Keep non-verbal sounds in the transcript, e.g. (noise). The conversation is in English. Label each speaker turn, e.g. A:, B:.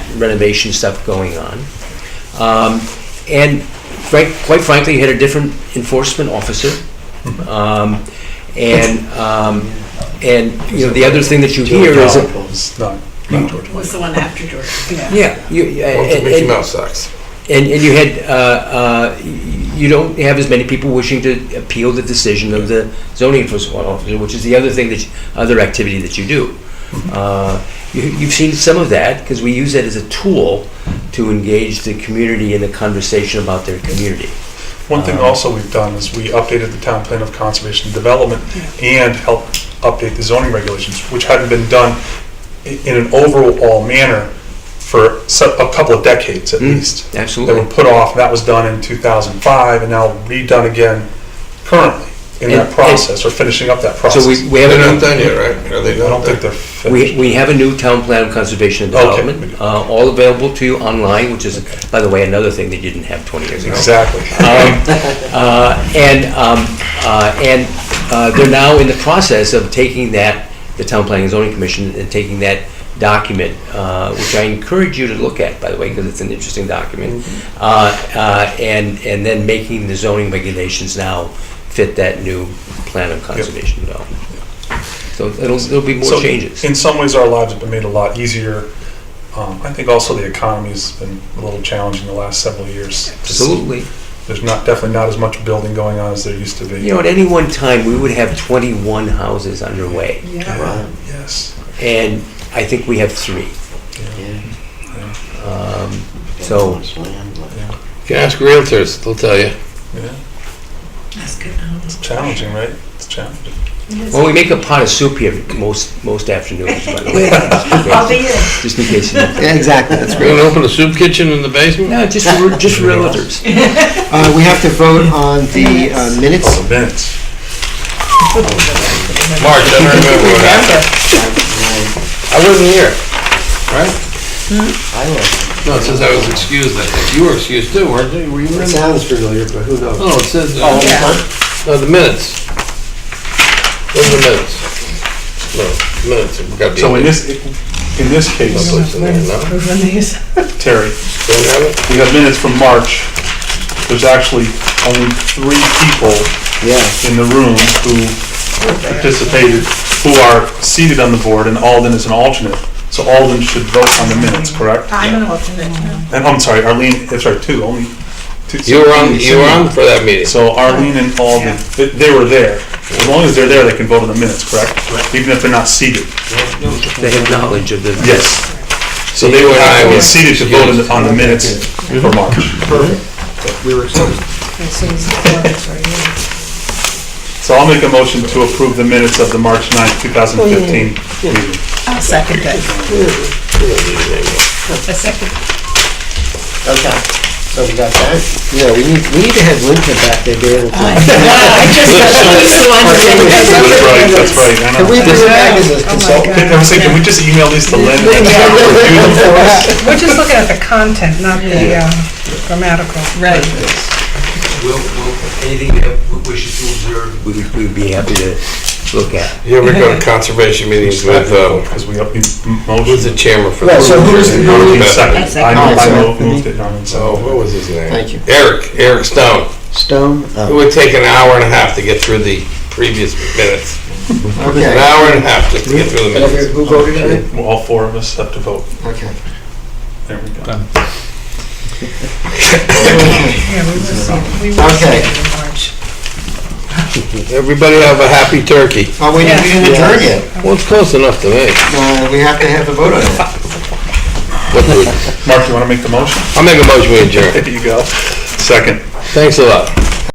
A: renovation stuff going on. Um, and frank, quite frankly, had a different enforcement officer. Um, and, um, and, you know, the other thing that you hear is, Mm. that-
B: was not, not George Michael.
C: was the one after George. Yeah.
A: yeah, you, uh,
D: Well,
A: and-
D: Mickey
A: and-
D: Mouse sucks.
A: And, and you had, uh, uh, y- you don't have as many people wishing to appeal the decision of the zoning enforcement officer, which is the other thing that, you- other activity that you do.
D: Mm-hmm.
A: Uh, you, you've seen some of that, because we use that as a tool to engage the community in the conversation about their community.
B: One thing
A: Um,
B: also we've done is we updated the town plan of conservation and development and helped update the zoning regulations, which hadn't been done i- in an overall manner for so- a couple of decades at
A: Mm,
B: least. They were
A: Absolutely.
B: put off, that was done in 2005 and now redone again currently in
A: And-
B: that
A: and-
B: process, or finishing up that process.
A: So we, we have
D: They're
A: a
D: not
A: new,
D: done yet, right? Are
B: I
D: they
B: don't
D: not
B: think
D: done?
B: they're
A: we,
B: finished.
A: we have a new town plan of conservation and
B: Okay.
A: development, uh, all available to you online, which is, by the way, another thing that you didn't have twenty years ago.
B: Exactly.
A: Um, uh, And, um, uh, and uh, they're now in the process of taking that, the Town Planning and Zoning Commission, and taking that document, uh, which I encourage you to look at, by the way, because it's an interesting document,
B: Mm-hmm.
A: uh, uh, and, and then making the zoning regulations now fit that new plan of conservation development. So it'll, there'll be more
B: So
A: changes.
B: In some ways, our lives have been made a lot easier. Um, I think also the economy's been a little challenging the last several years. Just-
A: Absolutely.
B: There's not, definitely not as much building going on as there used to be.
A: You know, at any one time, we would have 21 houses underway,
B: Yeah, Yes.
A: and I think we have three. Um, So,
B: yeah,
D: You can ask realtors, they'll tell you.
B: yeah.
C: That's good. knowledge.
B: It's challenging, right? It's challenging.
A: well, we make a pot of soup here most, most afternoons, by the way.
C: I'll be in.
A: (laughs) Just in case. you-
E: Yeah, exactly, that's
D: We're
E: great.
D: gonna open a soup kitchen in the basement?
A: (laughs) No, just, for- just for relatives.
E: (laughs)
A: (laughs)
E: Uh, we have to vote on the uh, minutes.
B: Also minutes.
D: March, I don't remember what happened. I wasn't here, right?
E: I was.
D: No, it says I was excused, I think. You were excused too, weren't you? Were you in?
E: sounds familiar, but who knows?
D: No, it says, uh,
E: Oh,
C: Yeah.
D: no, the minutes. Those are minutes. No, minutes, we gotta be.
B: So in this, in this case,
D: Someplace in there, no?
B: Terry,
D: Don't have it?
B: we have minutes from March. There's actually only three people
E: Yeah.
B: in the room who participated, who are seated on the board, and Alden is an alternate. So Alden should vote on the minutes, correct?
C: I'm an alternate. now.
B: And, I'm sorry, Arlene, that's right, two, only two.
D: You were on, you were on for that meeting.
B: So Arlene and Alden, they- they were there. As long as they're there, they can vote on the minutes, correct? Even if they're not seated.
A: They have knowledge of the.
B: Yes. So they were
D: You and I were
B: not seated to vote on the-
D: excused.
B: on the minutes for March.
C: Okay, so it's the four of us right here.
B: So I'll make a motion to approve the minutes of the March 9th, 2015 meeting.
C: I'll second that. A second.
F: (laughs)
E: Okay. So we got that? Yeah, we need, we need to have Lincoln back there being able to.
C: I just got the one
B: That's right, that's right, I know.
E: Can we bring him back as a consultant?
B: I was saying, can we just email these to Lynn? and have her review them for us?
F: We're just looking at the content, not the uh, grammatical.
C: Right.
A: Will, will, anything you wishes to observe? We would, we'd be happy to look at.
D: You ever
E: (laughs)
D: go to conservation meetings with, uh,
B: Because we up,
D: who's
B: motion.
D: the chairman for?
E: Right,
D: that?
E: so who's the-
B: Arlene
D: Beck.
B: seconded. I know, I know, moved it, Arlene
D: Oh,
B: seconded.
D: what was his name?
E: Thank you.
D: Eric, Eric Stone.
E: Stone?
D: It
E: Oh,
D: would take an hour and a half to get through the previous minutes. An
E: okay.
D: hour and a half just to get through the
E: Whatever-
D: minutes.
E: Who voted on it?
B: Well, All four of us have to vote.
E: Okay.
B: There we go.
F: Yeah, we were seeing, we were seeing
E: Okay.
F: it in March.
D: Everybody have a happy turkey.
E: Oh, we didn't we didn't adjourn yet.
D: Well, it's close enough to me.
E: Uh, we have to have a vote on it.
D: What do we-
B: Mark, you want to make the motion?
D: I'll make a motion, we adjourn.
B: There you go. Second.
D: Thanks a lot.